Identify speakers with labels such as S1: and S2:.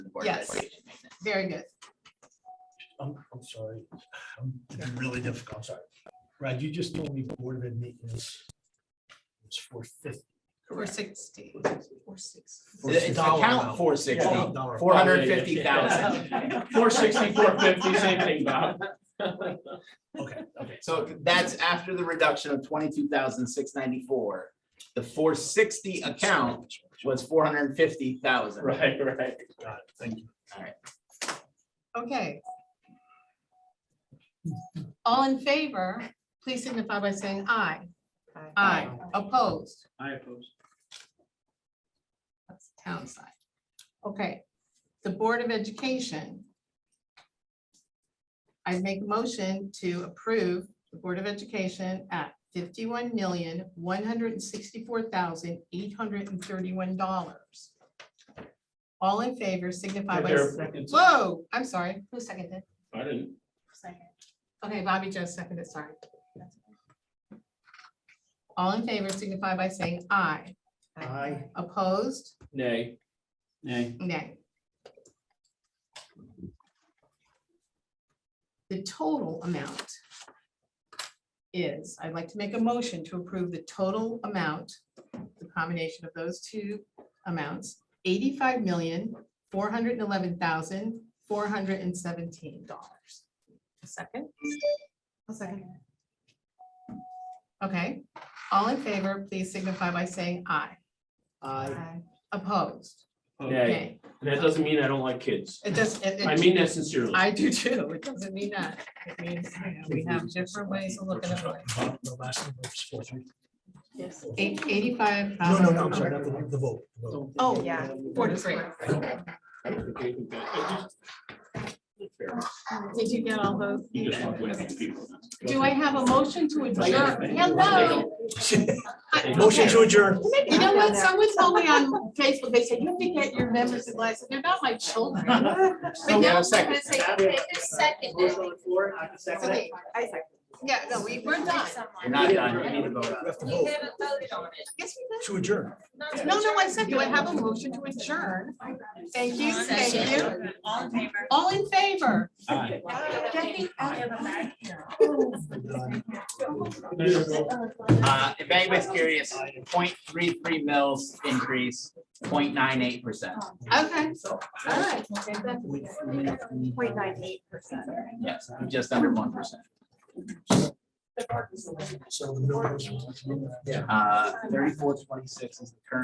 S1: Board of
S2: Yes.
S1: Education maintenance.
S2: Very good.
S3: I'm, I'm sorry, I'm being really difficult, I'm sorry. Brad, you just told me Board of Ed maintenance was four fifty.
S2: Four
S1: Correct.
S2: sixty. Four sixty.
S3: Four
S1: It's account
S3: amount.
S1: four sixty, four hundred fifty thousand.
S4: Four sixty, four fifty, same thing, Bob.
S3: Okay, okay.
S1: So that's after the reduction of twenty-two thousand six ninety-four. The four sixty account was four hundred and fifty thousand.
S4: Right, right.
S3: Got it, thank you.
S2: Okay. All in favor, please signify by saying aye. Aye. Opposed?
S4: I oppose.
S2: That's the town side. Okay, the Board of Education. I make a motion to approve the Board of Education at fifty-one million, one hundred and sixty-four thousand, eight hundred and thirty-one dollars. All in favor signify by, s- whoa, I'm sorry, who seconded?
S4: I didn't.
S2: Okay, Bobby just seconded, sorry. All in favor signify by saying aye.
S3: Aye.
S2: Opposed?
S4: Nay. Nay.
S2: Nay. The total amount is, I'd like to make a motion to approve the total amount, the combination of those two amounts, eighty-five million, four hundred and eleven thousand, four hundred and seventeen dollars. A second? A second. Okay, all in favor, please signify by saying aye. Aye. Opposed?
S4: Nay.
S2: Okay.
S4: That doesn't mean I don't like kids.
S2: It does, it,
S4: I
S2: it,
S4: mean that sincerely.
S2: I do too, it doesn't mean that, it means, you know, we have different ways of looking at it.
S3: Uh, The last number was four three.
S2: Yes. Eighty-five.
S3: No, no, no, I'm sorry, not the, the vote. the vote.
S2: Um, Oh,
S5: Yeah.
S2: forty-three, did you get all those?
S4: You just walk away from people.
S2: Do I have a motion to adjourn? Hello? I-
S3: Motion to
S2: okay.
S3: adjourn.
S2: You know what, someone told me on Facebook, they said, you have to get your members to listen, they're not my children. But
S1: we have
S2: now
S1: a
S2: I'm
S1: Oh, second.
S2: gonna say, okay, just second it. Okay,
S5: I second.
S2: Yeah, no, we, we're done.
S1: You're not done, you need to vote on
S3: We
S1: it.
S3: have to vote
S2: Yes, we did.
S3: To adjourn.
S2: No, no, I said, do I have a motion to adjourn? Thank you, thank you.
S5: All in favor?
S2: All in favor?
S5: Get the other bag.
S1: Uh, if anybody's curious, 0.33 mils increase, 0.98 percent.
S2: Okay, all right.
S5: Point nine eight percent.
S1: Yes, just under one percent.
S3: So the numbers.
S1: Uh, thirty-four twenty-six is the current